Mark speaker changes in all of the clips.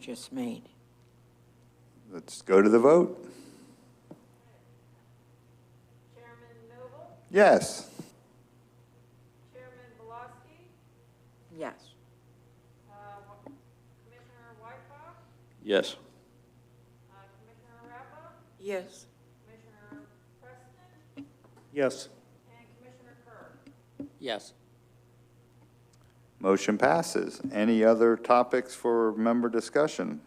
Speaker 1: just made.
Speaker 2: Let's go to the vote. Chairman Noble? Yes.
Speaker 3: Chairman Belaski,
Speaker 1: Yes.
Speaker 3: uh, Wa- Commissioner Wykoff,
Speaker 4: Yes.
Speaker 3: uh, Commissioner Rappa,
Speaker 1: Yes.
Speaker 3: Commissioner Preston,
Speaker 5: Yes.
Speaker 3: and Commissioner Kerr.
Speaker 4: Yes.
Speaker 2: Motion passes. Any other topics for member discussion?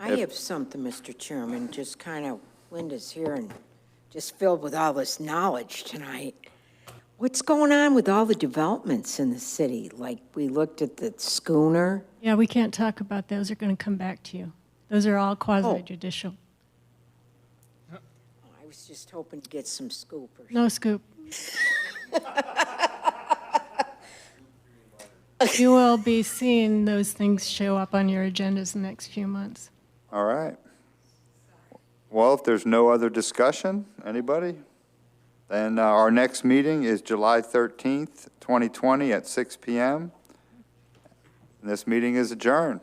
Speaker 1: I have something, Mr. Chairman, just kind of, Linda's here and just filled with all this knowledge tonight. What's going on with all the developments in the city? Like, we looked at the schooner.
Speaker 6: Yeah, we can't talk about those. They're going to come back to you. Those are all quasi judicial.
Speaker 1: I was just hoping to get some scoopers.
Speaker 6: No scoop. you will be seeing those things show up on your agendas in the next few months.
Speaker 2: All right. Well, if there's no other discussion, anybody? Then uh, our next meeting is July 13th, 2020 at 6 PM. This meeting is adjourned.